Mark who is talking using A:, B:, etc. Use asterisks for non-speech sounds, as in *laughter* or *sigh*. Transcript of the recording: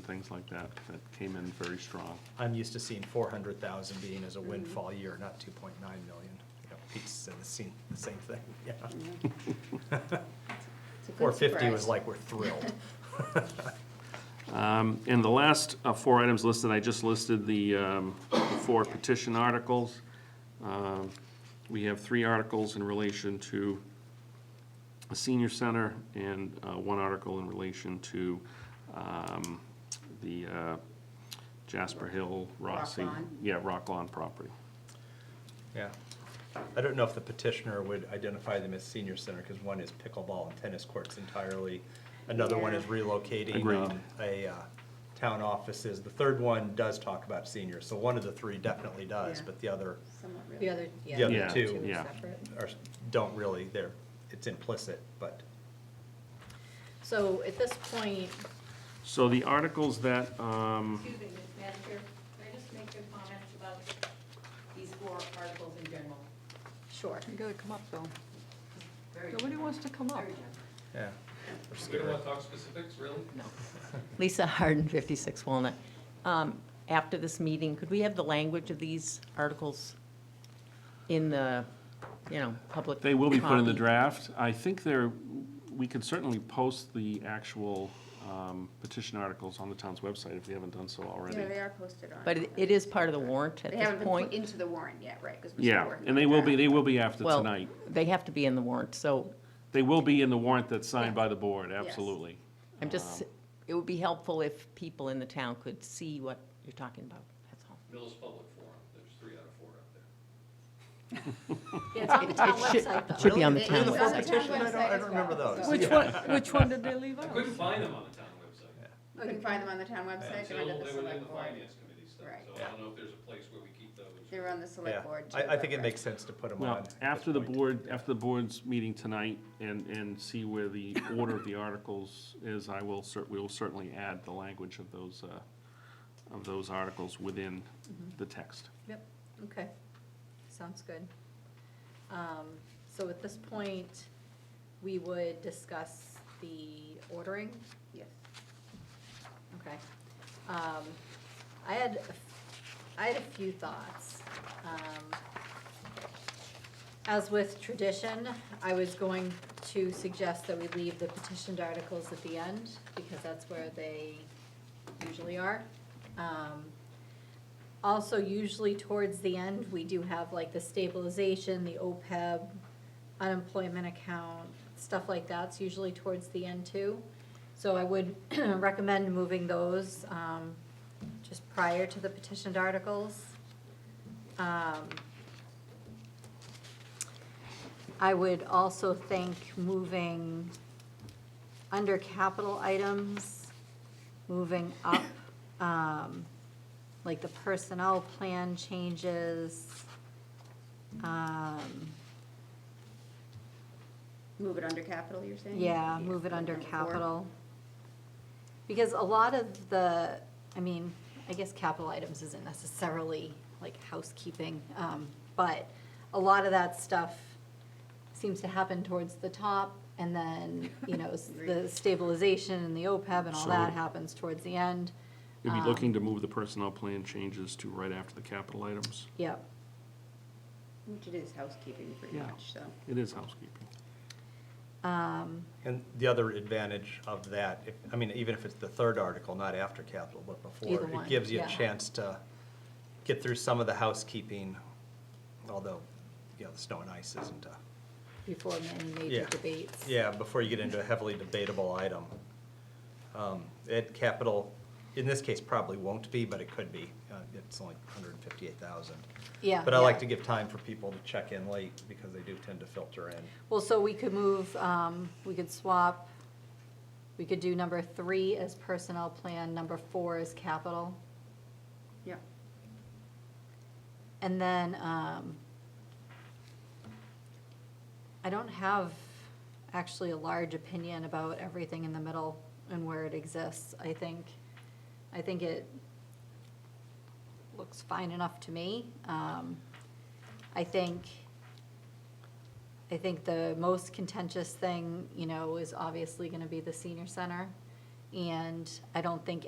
A: things like that, that came in very strong.
B: I'm used to seeing four hundred thousand being
C: Mm-hmm.
B: as a windfall year, not two point nine million. You know, Pete's said the same, the same thing, *laughs* yeah.
C: It's a good
B: Four fifty was
C: surprise.
B: like, we're thrilled. *laughs*
A: Um, And the last uh, four items listed, I just listed the um, the four petition articles. Um, We have three articles in relation to a senior center and uh, one article in relation to um, the uh, Jasper Hill, Rossi.
C: Rock Lawn.
A: Yeah, Rock Lawn property.
B: Yeah. I don't know if the petitioner would identify them as senior center, because one is pickleball and tennis courts entirely. Another one is
C: Yeah.
B: relocating
A: Agreed.
B: um, a uh, town offices. The third one does talk about seniors, so one of the three definitely does,
C: Yeah.
B: but the other
C: Somewhat
D: The
C: really.
D: other, yeah.
B: The other
A: Yeah,
B: two.
D: are
A: yeah.
D: separate.
B: are, don't really, they're, it's implicit, but
D: So at this point,
A: So the articles that, um,
E: Excuse me, Madam Chair, can I just make a comment about these four articles in general?
D: sure.
F: You gotta come up, Bill.
E: Very
F: Nobody wants to come up.
E: very general.
B: yeah. we're
G: We don't
B: scared.
G: want to talk specifics, really?
H: Lisa Harden, 56 Walnut. Um, After this meeting, could we have the language of these articles in the, you know, public?
A: They will be put in the
H: copy?
A: draft. I think there, we could certainly post the actual um, petition articles on the town's website if we haven't done so
C: Yeah,
A: already.
C: they are posted on. uh,
H: But it- it is part of the warrant at
C: They
H: this
C: haven't been
H: point.
C: put into the warrant yet, right? 'cause we're still
A: Yeah,
C: working
A: and
C: on
A: they will
C: that.
A: be, they will be after
H: Well,
A: tonight.
H: They have to be in the warrant, so
A: They will be in the warrant that's signed by the board, absolutely.
H: I'm just, it would be helpful if people in the town could see what you're talking about, that's all.
G: Millis Public Forum, there's three out of four up there.
D: Yeah, it's on the town
H: It should-
D: website, though.
H: Should be on the
C: Really?
H: town
C: It's on the town
H: website.
B: Petition, I don't,
C: website
B: I
C: as
B: don't remember
C: well,
B: those.
C: so-
F: Which
B: Yeah.
F: one, which one did they leave
G: I
F: out?
G: couldn't find them on the town website.
C: Oh, you can find them on the town website, they're under
G: Until
C: the
G: they were in
C: select
G: the
C: board.
G: finance committee stuff,
C: Right.
G: so I don't know if there's a place where we keep those.
C: They're on the
B: Yeah,
C: select board.
B: I,
C: too,
B: I think
C: but
B: it
C: right.
B: makes sense to put them on.
A: Well,
B: at this
A: after the
B: point.
A: board, after the board's meeting tonight and, and see where the order of the articles is, I will cer, we will certainly add the language of those, uh, of those articles within
C: Mm-hmm.
A: the text.
D: Yep, okay, sounds good. Um, So at this point, we would discuss the ordering,
C: Yes.
D: okay. Um, I had, a f- I had a few thoughts. Um, As with tradition, I was going to suggest that we leave the petitioned articles at the end, because that's where they usually are. Um, also, usually towards the end, we do have like the stabilization, the OPEB, unemployment account, stuff like that's usually towards the end too. So I would *clears throat* recommend moving those, um, just prior to the petitioned articles. Um, I would also think moving under capital items, moving up, um, like the personnel plan changes. Um,
C: Move it under capital, you're saying?
D: yeah, move it under
C: number four.
D: capital. Because a lot of the, I mean, I guess capital items isn't necessarily like housekeeping, um, but a lot of that stuff seems to happen towards the top, and then, you know, s- the stabilization and the OPEB and all
A: So-
D: that happens towards the end.
A: We'll be
D: Um,
A: looking to move the personnel plan changes to right after the capital items.
D: Yep,
C: Which it is housekeeping pretty
A: Yeah.
C: much, so.
A: It is housekeeping.
D: um,
B: And the other advantage of that, if, I mean, even if it's the third article, not after capital, but
D: Either
B: before,
D: one,
B: it gives you a
D: yeah.
B: chance to get through some of the housekeeping, although, you know, the snow and ice isn't a,
D: before any major
B: Yeah.
D: debates.
B: yeah, before you get into a heavily debatable item. Um, Ed capital, in this case, probably won't be, but it could be. Uh, It's only hundred and fifty-eight thousand.
D: Yeah.
B: But I like
D: yeah.
B: to give time for people to check in late because they do tend to filter in.
D: Well, so we could move, um, we could swap, we could do number three as personnel plan, number four as capital.
C: Yeah.
D: And then, um, I don't have actually a large opinion about everything in the middle and where it exists. I think, I think it looks fine enough to me. Um, I think, I think the most contentious thing, you know, is obviously gonna be the senior center. And I don't think